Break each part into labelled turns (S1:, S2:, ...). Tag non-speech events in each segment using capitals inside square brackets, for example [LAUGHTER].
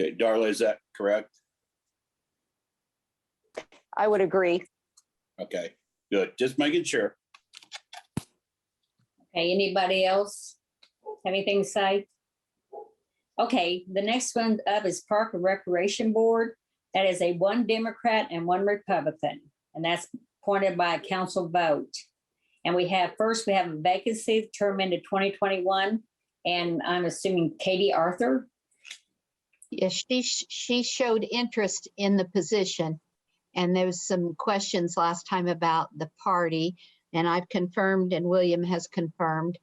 S1: Okay, Darla, is that correct?
S2: I would agree.
S1: Okay, good. Just making sure.
S3: Okay, anybody else? Anything to say? Okay, the next one up is Park and Recreation Board. That is a one Democrat and one Republican, and that's appointed by a council vote. And we have, first, we have a vacancy, term into twenty twenty-one, and I'm assuming Katie Arthur.
S4: Yes, she, sh- she showed interest in the position. And there was some questions last time about the party. And I've confirmed and William has confirmed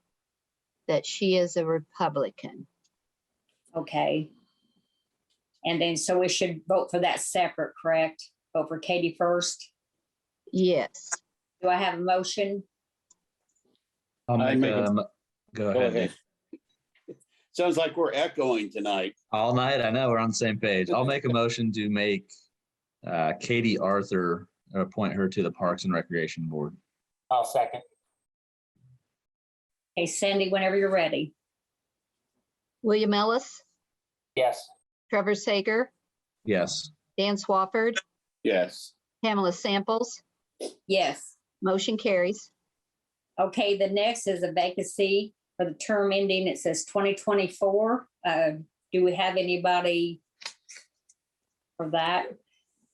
S4: that she is a Republican.
S3: Okay. And then, so we should vote for that separate, correct? Vote for Katie first.
S4: Yes.
S3: Do I have a motion?
S5: I'll
S1: I
S5: make
S1: make a-
S5: a, mo- go
S1: Go
S5: ahead.
S1: ahead. [LAUGHS] Sounds like we're echoing tonight.
S5: All night, I know, we're on the same page. I'll make a motion to make uh, Katie Arthur, uh, appoint her to the Parks and Recreation Board.
S6: I'll second.
S3: Hey Sandy, whenever you're ready.
S4: William Ellis,
S6: Yes,
S4: Trevor Sager,
S5: Yes,
S4: Dan Swafford,
S1: Yes.
S4: Pamela Samples,
S3: Yes.
S4: motion carries.
S3: Okay, the next is a vacancy for the term ending. It says twenty twenty-four. Uh, do we have anybody for that?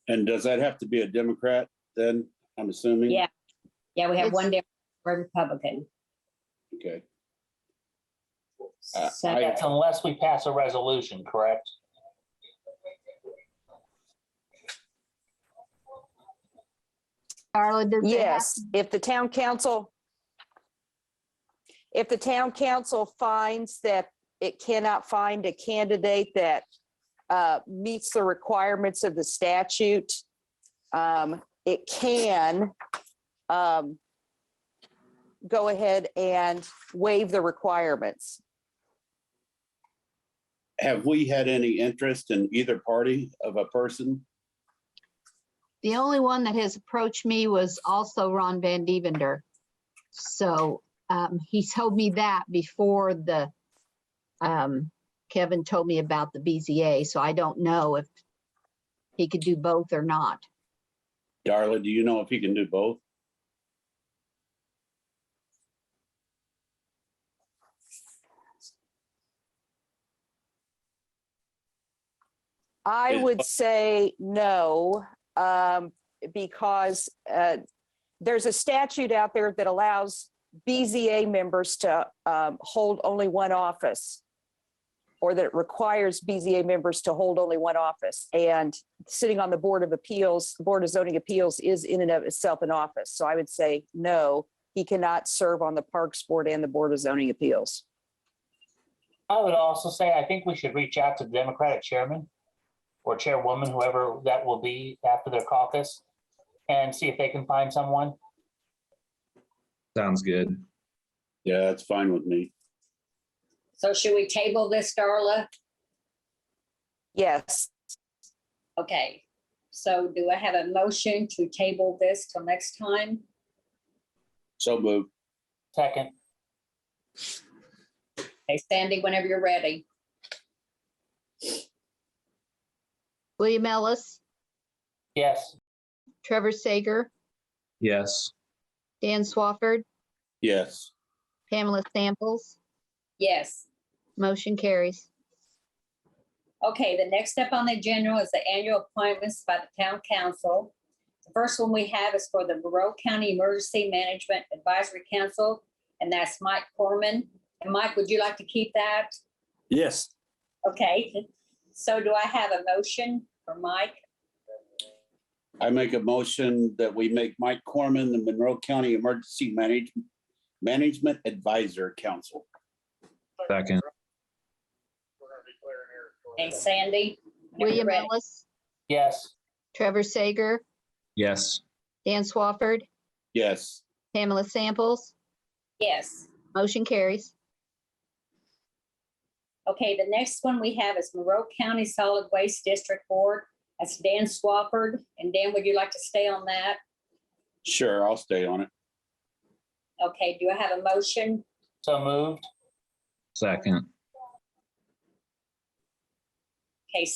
S1: And does that have to be a Democrat then? I'm assuming?
S3: Yeah. Yeah, we have
S4: It's-
S3: one Democrat, one Republican.
S1: Okay. Uh,
S3: So
S1: I-
S3: that's-
S6: that's unless we pass a resolution, correct?
S4: Darla, does that have
S2: Yes, if the town council, if the town council finds that it cannot find a candidate that uh, meets the requirements of the statute, um, it can um, go ahead and waive the requirements.
S1: Have we had any interest in either party of a person?
S4: The only one that has approached me was also Ron Van Divender. So um, he told me that before the, um, Kevin told me about the BZA, so I don't know if he could do both or not.
S1: Darla, do you know if he can do both?
S2: I
S1: Is-
S2: would say no, um, because, uh, there's a statute out there that allows BZA members to, um, hold only one office. Or that it requires BZA members to hold only one office and sitting on the Board of Appeals, Board of Zoning Appeals is in and of itself an office. So I would say no, he cannot serve on the Parks Board and the Board of Zoning Appeals.
S6: I would also say, I think we should reach out to the Democratic chairman or chairwoman, whoever that will be after their caucus, and see if they can find someone.
S5: sounds good.
S1: Yeah, that's fine with me.
S3: So should we table this, Darla?
S2: Yes,
S3: Okay, so do I have a motion to table this till next time?
S1: So moved.
S6: Second,
S3: Hey Sandy, whenever you're ready.
S4: William Ellis,
S6: yes,
S4: Trevor Sager,
S5: Yes,
S4: Dan Swafford,
S1: Yes.
S4: Pamela Samples,
S3: Yes.
S4: motion carries.
S3: Okay, the next step on the agenda is the annual appointments by the town council. The first one we have is for the Monroe County Emergency Management Advisory Council, and that's Mike Corman. And Mike, would you like to keep that?
S1: Yes.
S3: Okay, so do I have a motion for Mike?
S1: I make a motion that we make Mike Corman the Monroe County Emergency Manage- Management Advisor Council.
S5: second.
S3: And Sandy? whenever you're
S4: William
S3: ready.
S4: Ellis,
S6: yes,
S4: Trevor Sager,
S5: Yes,
S4: Dan Swafford,
S1: Yes.
S4: Pamela Samples,
S3: Yes.
S4: motion carries.
S3: Okay, the next one we have is Monroe County Solid Waste District Board. That's Dan Swafford. And Dan, would you like to stay on that?
S1: Sure, I'll stay on it.
S3: Okay, do I have a motion?
S6: so moved,
S5: second.